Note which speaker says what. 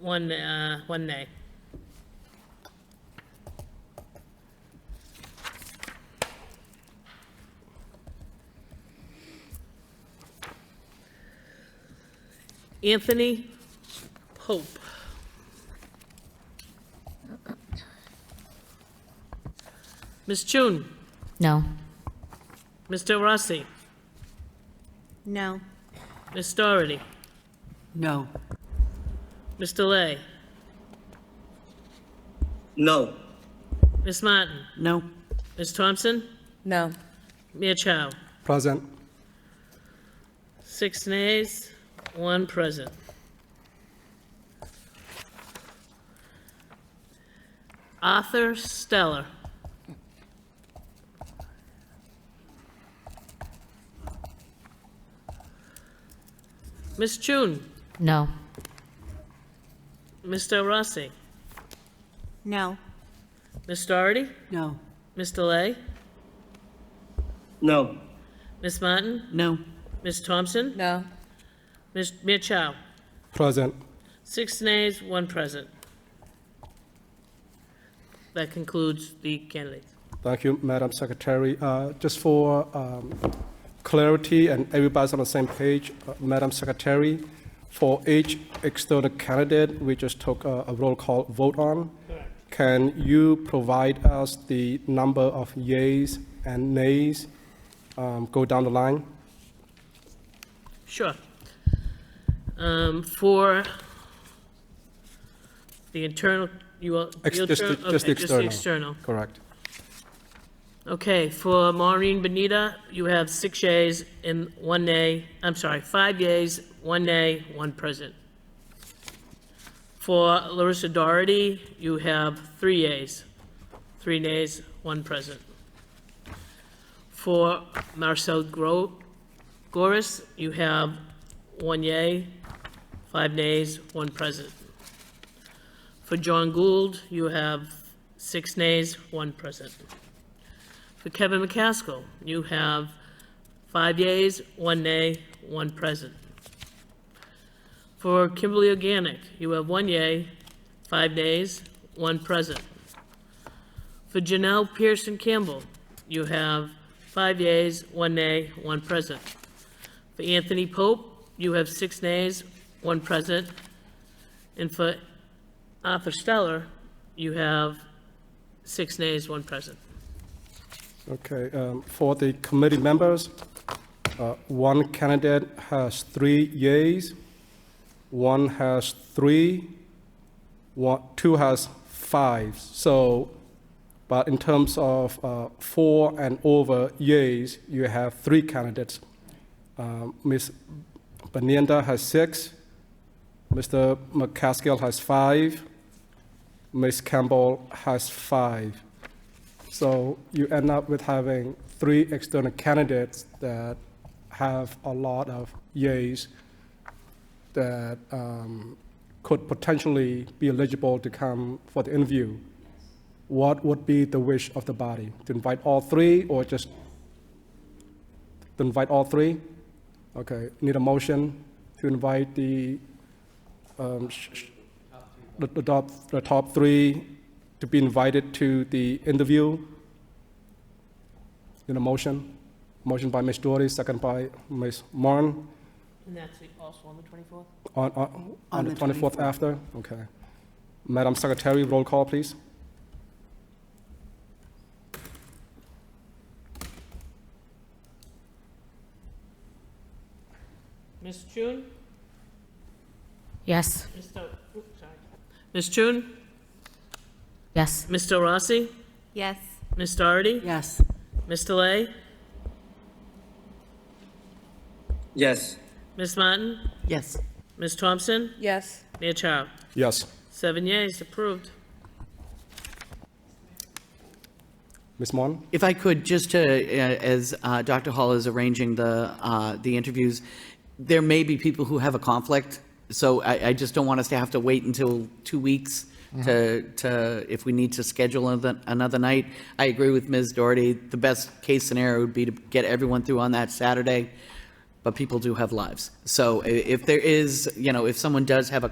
Speaker 1: one, uh, one nay. Anthony Pope. Ms. Chun,
Speaker 2: No.
Speaker 1: Mr. Rossi,
Speaker 3: No.
Speaker 1: Ms. Doherty,
Speaker 3: No.
Speaker 1: Mr. Lay,
Speaker 4: No.
Speaker 1: Ms. Martin,
Speaker 3: No.
Speaker 1: Ms. Thompson,
Speaker 3: No.
Speaker 1: Mia Chow.
Speaker 5: Present.
Speaker 1: Six nays, one present. Arthur Stellar. Ms. Chun,
Speaker 2: No.
Speaker 1: Mr. Rossi,
Speaker 3: No.
Speaker 1: Ms. Doherty,
Speaker 3: No.
Speaker 1: Mr. Lay,
Speaker 4: No.
Speaker 1: Ms. Martin,
Speaker 3: No.
Speaker 1: Ms. Thompson,
Speaker 3: No.
Speaker 1: Ms. Mia Chow.
Speaker 5: Present.
Speaker 1: Six nays, one present. That concludes the candidates.
Speaker 5: Thank you, Madam Secretary. Uh, Just for um, clarity and everybody's on the same page, uh, Madam Secretary, for each external candidate, we just took a a roll call vote on. Can you provide us the number of yays and nays? Um, Go down the line.
Speaker 1: Sure. Um, For the internal, you all.
Speaker 5: Ex-
Speaker 1: you'll
Speaker 5: just the-
Speaker 1: turn-
Speaker 5: just the
Speaker 1: okay,
Speaker 5: external.
Speaker 1: external.
Speaker 5: Correct.
Speaker 1: Okay, for Maureen Benita, you have six yays and one nay, I'm sorry, five yays, one nay, one present. For Larissa Doherty, you have three yays, three nays, one present. For Marcel Gro, Goris, you have one yay, five nays, one present. For John Gould, you have six nays, one present. For Kevin McCaskill, you have five yeas, one nay, one present. For Kimberly Organic, you have one yea, five nays, one present. For Janelle Pearson Campbell, you have five yeas, one nay, one present. For Anthony Pope, you have six nays, one present. And for Arthur Stellar, you have six nays, one present.
Speaker 5: Okay, um, for the committee members, uh, one candidate has three yays, one has three, one, two has five. So, but in terms of uh, four and over yays, you have three candidates. Um, Ms. Benenda has six, Mr. McCaskill has five, Ms. Campbell has five. So you end up with having three external candidates that have a lot of yays that um, could potentially be eligible to come for the interview. What would be the wish of the body? To invite all three or just to invite all three? Okay, need a motion to invite the, um, sh- sh- the- the top, the top three to be invited to the interview. In a motion, motion by Ms. Doherty, second by Ms. Martin,
Speaker 1: And that's also on the 24th?
Speaker 5: on, on, on the 24th after, okay. Madam Secretary, roll call, please.
Speaker 1: Ms. Chun?
Speaker 2: Yes.
Speaker 1: Mr. oops, sorry. Ms. Chun?
Speaker 2: Yes.
Speaker 1: Mr. Rossi?
Speaker 3: Yes.
Speaker 1: Ms. Doherty?
Speaker 3: Yes.
Speaker 1: Mr. Lay?
Speaker 4: Yes.
Speaker 1: Ms. Martin?
Speaker 3: Yes.
Speaker 1: Ms. Thompson?
Speaker 3: Yes.
Speaker 1: Mia Chow?
Speaker 5: Yes,
Speaker 1: Seven yeas, approved.
Speaker 5: Ms. Martin?
Speaker 6: If I could, just to, uh, as uh, Dr. Hall is arranging the, uh, the interviews, there may be people who have a conflict, so I, I just don't want us to have to wait until two weeks to, to, if we need to schedule another, another night. I agree with Ms. Doherty, the best case scenario would be to get everyone through on that Saturday, but people do have lives. So i- if there is, you know, if someone does have a